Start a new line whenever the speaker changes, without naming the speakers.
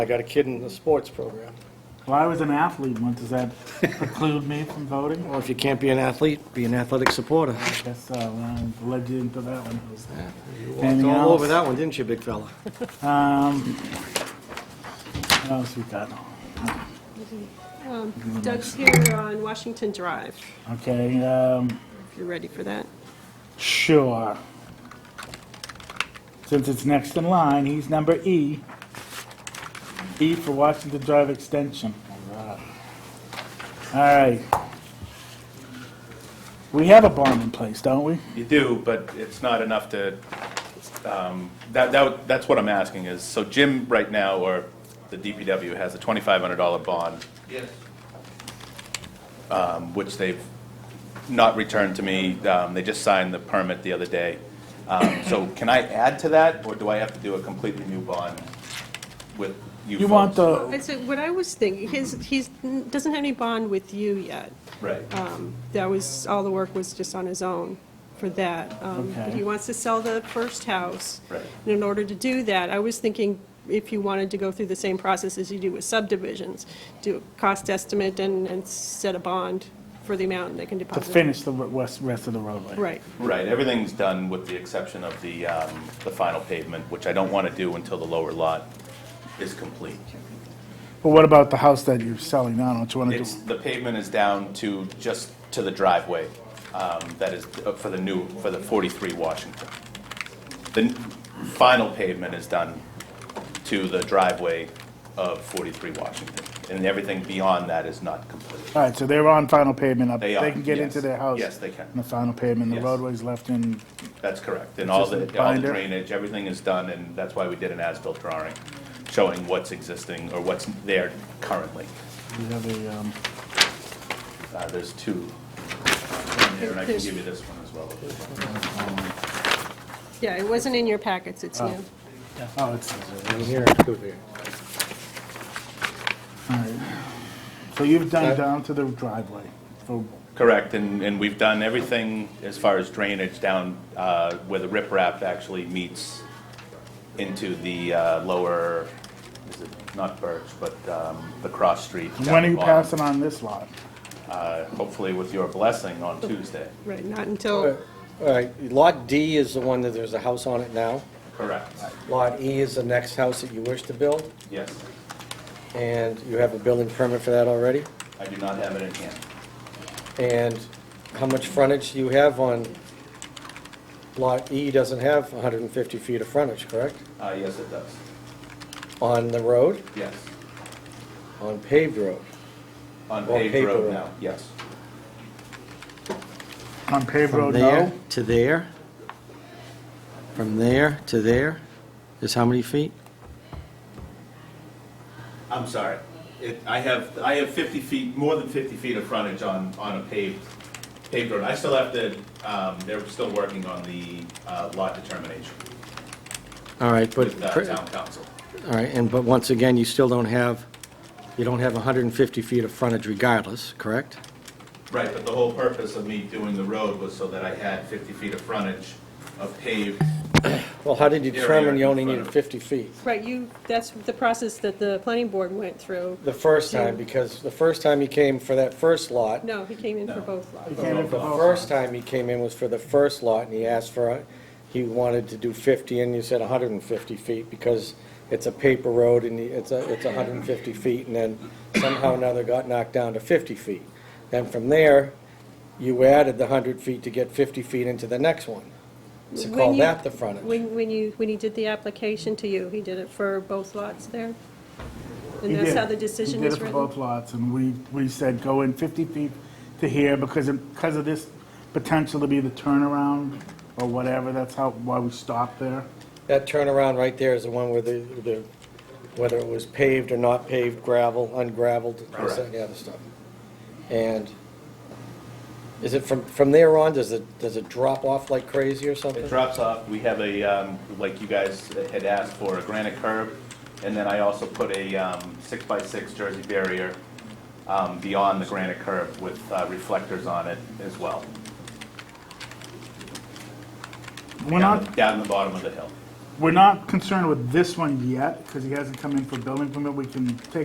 I got a kid in the sports program.
Well, I was an athlete once, does that preclude me from voting?
Well, if you can't be an athlete, be an athletic supporter.
I guess uh, well, I'm led you into that one. Jose.
You walked
Anything
all over
else?
that one, didn't you, big fella?
Um, what else we got?
Doug's here on Washington Drive,
Okay, um,
if you're ready for that.
sure. Since it's next in line, he's number E. E for Washington Drive Extension. All right. We have a bond in place, don't we?
You do, but it's not enough to, um, that, that, that's what I'm asking is, so Jim right now, or the DPW has a $2,500 bond. Yes. Which they've not returned to me. Um, They just signed the permit the other day. Um, So can I add to that, or do I have to do a completely new bond with you
You want
folks?
the,
I said, what I was thinking, his, he's, doesn't have any bond with you yet.
Right.
Um, That was, all the work was just on his own for that. Um, but
Okay.
He wants to sell the first house.
Right.
And in order to do that, I was thinking if you wanted to go through the same process as you do with subdivisions, do a cost estimate and, and set a bond for the amount they can
to
deposit.
finish the rest rest of the roadway?
Right.
Right, everything's done with the exception of the, um, the final pavement, which I don't want to do until the lower lot is complete.
But what about the house that you're selling now? Don't you want to do?
It's, the pavement is down to, just to the driveway, um, that is uh, for the new, for the 43 Washington. The n- final pavement is done to the driveway of 43 Washington, and everything beyond that is not complete.
All right, so they're on final pavement up.
They are,
can get into
yes.
their house.
Yes, they can.
On the final pavement, the
Yes.
roadway's left in,
That's correct, and all
Just
the,
the
all the
binder?
drainage, everything is done, and that's why we did an as-built drawing, showing what's existing or what's there currently.
we have a, um,
Uh, There's two uh, in there, and I can give you this one as well.
Yeah, it wasn't in your packets, it's new.
oh, it's,
Here, go there.
all right. So you've done
That-
down to the driveway. So
Correct, and, and we've done everything as far as drainage down uh, where the riprap actually meets into the uh, lower, is it not Birch, but um, the cross street. down
when are
the
you
bottom.
passing on this lot?
Uh, Hopefully with your blessing on Tuesday.
Right, not
All
until,
right, Lot D is the one that there's a house on it now.
Correct.
Lot E is the next house that you wish to build,
Yes,
and you have a building permit for that already.
I do not have it in hand.
And how much frontage do you have on, Lot E doesn't have 150 feet of frontage, correct?
Uh, Yes, it does.
On the road,
Yes.
on paved road.
On
Well,
paved
paper
road
road.
now, yes.
On paved
From
road,
there
no?
to there, from there to there, is how many feet?
I'm sorry. It, I have, I have 50 feet, more than 50 feet of frontage on, on a paved, paved road. I still have to, um, they're still working on the uh, lot determination
All right, but,
with uh, town council.
all right, and, but once again, you still don't have, you don't have 150 feet of frontage regardless, correct?
Right, but the whole purpose of me doing the road was so that I had 50 feet of frontage of paved.
Well, how did you
Area
determine you
in
only
front
needed
of-
50 feet?
right, you, that's the process that the planning board went through.
The first time, because the first time he came for that first lot,
No, he came in for both lots.
Came
the
in for both
first time he came in was for the first lot, and he asked for, a- he wanted to do 50, and you said 150 feet, because it's a paper road, and it's a, it's 150 feet, and then somehow or another got knocked down to 50 feet. Then from there, you added the 100 feet to get 50 feet into the next one. So
When
call
you-
that the frontage.
When, when you, when he did the application to you, he did it for both lots there?
He
And that's
did.
how the decision
He
is
did it for both
written?
lots, and we, we said go in 50 feet to here because, of- because of this potential to be the turnaround or whatever, that's how, why we stopped there.
That turnaround right there is the one where the, the- whether it was paved or not paved, gravel, ungraveled, this, that, and the other stuff. And is it from, from there on, does it, does it drop off like crazy or something?
It drops off. We have a, um, like you guys had asked for, a granite curb. And then I also put a um, six-by-six jersey barrier um, beyond the granite curb with uh, reflectors on it as well.
We're
down
not,
the- Down the bottom of the hill.
We're not concerned with this one yet, because he hasn't come in for building permit, we can take